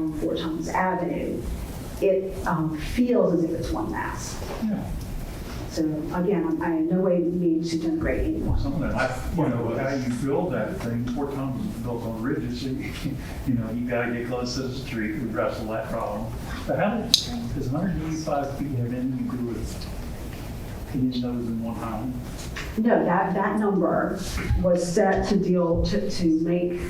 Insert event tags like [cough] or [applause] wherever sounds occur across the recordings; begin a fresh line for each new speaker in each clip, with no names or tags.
along Four Towns Avenue, it um, feels as if it's one mass. So again, I'm- I in no way mean to denigrate anyone.
Some of that, I- you know, how you build that thing, Fort Thomas was built on ridges, [laughs] so you, you know, you gotta get close to the street, we wrestle that problem. But how did, does 185 feet have anything to do with hitting those in one home?
No, that, that number was set to deal, to, to make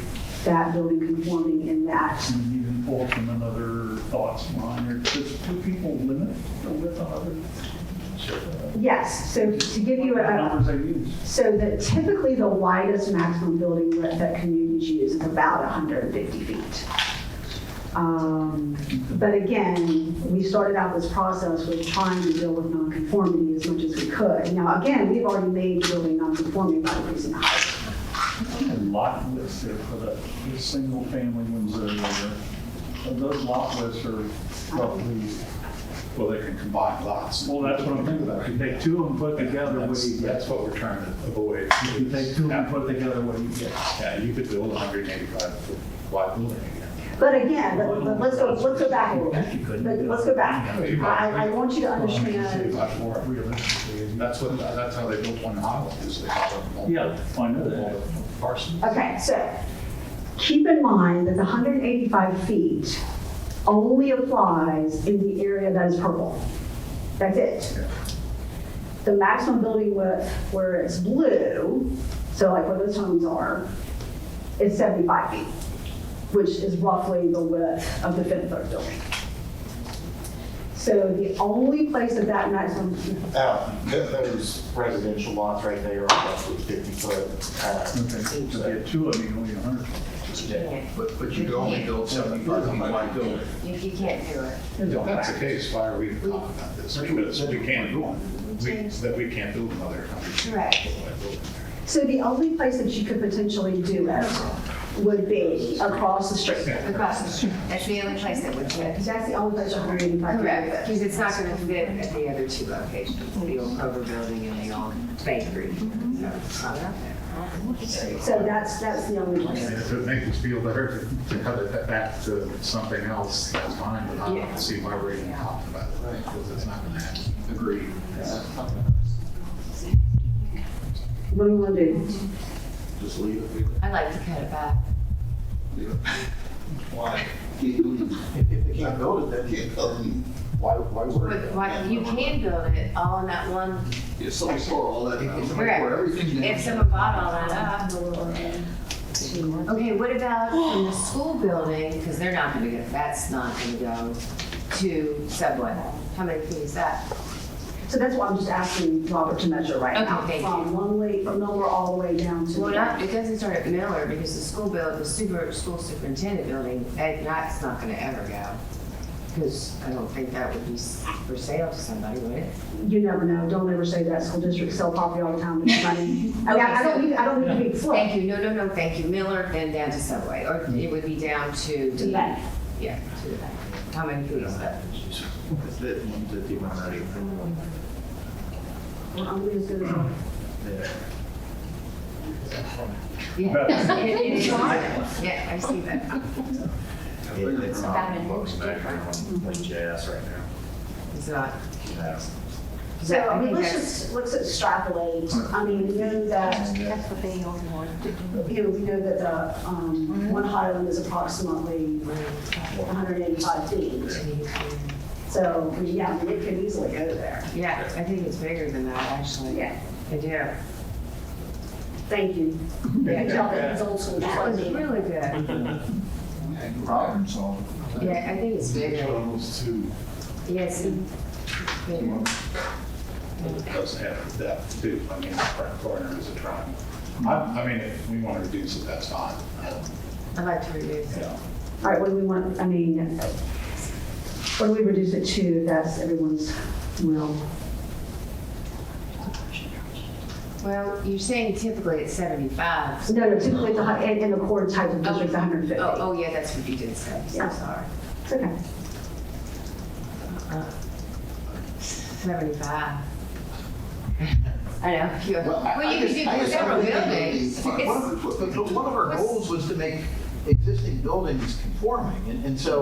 that building conforming in that
And you can pull from another thoughts line, or does do people limit the width on other?
Yes, so to give you
What
a,
Numbers they use?
so that typically the widest maximum building width that communities use is about 150 feet. Um, But again, we started out this process with trying to deal with nonconformity as much as we could. Now, again, we've already made the building nonconforming by increasing the height.
A lot lists there for the, the single family ones that are there. Those lot lists are roughly,
Well, they can combine lots.
well, that's what I'm thinking about. If you take two of them put together, what do
That's,
you get?
that's what we're trying to avoid.
If you take two of them put together, what do you get?
Yeah, you could build a hundred and eighty-five foot wide building again.
But again, let- let- let's go, let's go back a little bit. Let- Let's go back. I, I want you to understand,
Much more realistically, and that's what, that's how they built one Highland, is they had a multiple-
Yeah, I know that.
multiple parcels.
Okay, so keep in mind that the 185 feet only applies in the area that is purple. That's it. The maximum building width where it's blue, so like where those homes are, is 75 feet, which is roughly the width of the fifth floor building. So the only place that that maximum,
Uh, th- Those residential lots right there are roughly 50 foot. uh,
Okay, to get two of them, you only a hundred.
But, but you can only build seventy-five feet wide building.
You, you can't do it.
If that's the case, why are we talking about this? Because we can't, we, that we can't build another hundred.
Correct.
so the only place that you could potentially do it would be across the street.
Across the street. That's the only place that would fit.
Because that's the only place you're hiring by
Correct, because it's not gonna fit at the other two locations, the old Kroger building and the old bakery. So it's not out there.
So that's, that's the only
And
place.
if it makes us feel better to to cut it back to something else, that's fine, but I
Yeah.
don't see why we're even talking about it, right? Because it's not gonna happen. Agreed.
What do we want to do?
Just leave it.
I like to cut it back.
Why? If, if they can't build it, then can't build it. Why, why worry?
But why, you can build it all in that one,
If somebody tore all that, if somebody
Correct.
tore everything down.
if someone bought all that up. Okay, what about from [gasps] the school building, because they're not gonna go, that's not gonna go to Subway. How many feet is that?
So that's why I'm just asking Robert to measure right
Okay,
now.
thank you.
From one way, from nowhere all the way down to.
Well, not, it doesn't start at Miller because the school build, the super, school superintendent building, that, that's not gonna ever go. Cause I don't think that would be s- for sale to somebody, would it?
You never know. Don't ever say that. School districts sell property all the time. [laughs] It's funny. I mean, I don't, need- I don't need to be
Thank
flip.
you, no, no, no, thank you, Miller, then down to Subway, or it would be down to.
To the back.
Yeah, to the back. How many feet is that?
That's it, one fifty, one ninety.
Well, I'm gonna just go-
Yeah. [laughs]
About-
Yeah, I see that.
It's
about an inch Mm-hmm.
like jazz right now.
It's not.
So,
I
I mean,
think
let's
that's-
just, let's extrapolate. I mean, we know that,
That's what they all want to do.
you know, we know that the, um, one Highland is approximately 185 feet. So, yeah, I mean, it could easily go there.
Yeah, I think it's bigger than that, actually.
Yeah.
I do.
Thank you. Yeah, tell that it's old school
That was
funding.
really good.
Problem solved.
Yeah, I think it's bigger.
Almost two,
Yes. Bigger.
it does have depth too, I mean, the front corner is a triangle. I, I mean, if we want to reduce it, that's fine.
I'd like to reduce it.
Yeah.
All right, what do we want, I mean, what do we reduce it to, if that's everyone's will?
Well, you're saying typically it's seventy-five.
No, no, typically the, hu- in, in the core type of district, 150.
Oh, oh, yeah, that's what you did say, so
Yeah.
sorry.
It's okay.
[laughs]
Seventy-five. I know, you,
Well, I-
well,
I
you could
just-
do
I just-
several
I'm thinking
buildings.
of the- One of the- one of our goals was to make existing buildings conforming, and, and so